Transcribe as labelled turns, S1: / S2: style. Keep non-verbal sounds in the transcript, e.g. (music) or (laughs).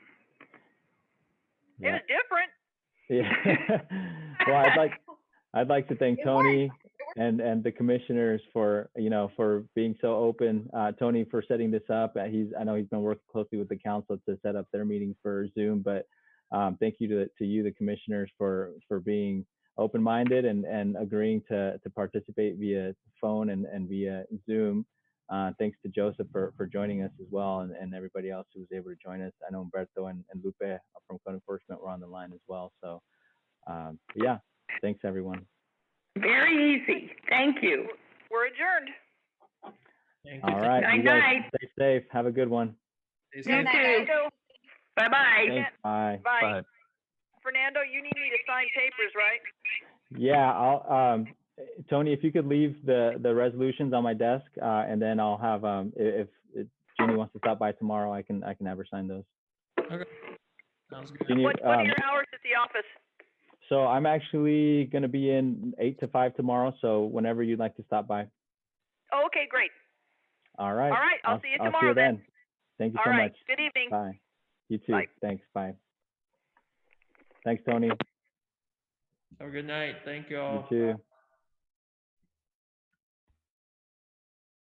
S1: It
S2: Yeah.
S1: was different.
S2: Yeah. (laughs) Well, I'd like, I'd like to thank
S3: It worked.
S2: Tony and, and the commissioners for, you know, for being so open. Uh, Tony for setting this up. Uh, He's, I know he's been working closely with the council to set up their meetings for Zoom, but, um, thank you to, to you, the commissioners, for, for being open-minded and, and agreeing to, to participate via phone and, and via Zoom. Uh, thanks to Joseph for, for joining us as well and, and everybody else who was able to join us. I know Umberto and, and Lupe uh, from code enforcement were on the line as well. So, um, yeah, thanks everyone.
S3: Very easy. Thank you.
S1: We're adjourned.
S2: All right. you
S3: Night,
S2: guys
S3: night.
S2: Stay safe. Have a good one.
S4: Stay
S3: You
S4: safe.
S3: too.
S1: Fernando,
S3: Bye-bye.
S2: Thanks. Bye.
S1: Bye. Fernando, you need me to sign papers, right?
S2: Yeah, I'll, um, Tony, if you could leave the, the resolutions on my desk, uh, and then I'll have, um, i- if, if Jeannie wants to stop by tomorrow, I can, I can have her sign those.
S4: Sounds good.
S2: Jeannie,
S1: What, what are
S2: um,
S1: your hours at the office?
S2: so I'm actually gonna be in eight to five tomorrow, so whenever you'd like to stop by.
S1: Oh, okay, great.
S2: All right.
S1: All right, I'll see you tomorrow then.
S2: Thank you
S1: All
S2: so
S1: right,
S2: much.
S1: good evening.
S2: Bye. You too.
S1: Bye.
S2: Thanks. Bye. Thanks, Tony.
S4: Have a good night. Thank you
S2: You
S4: all.
S2: too.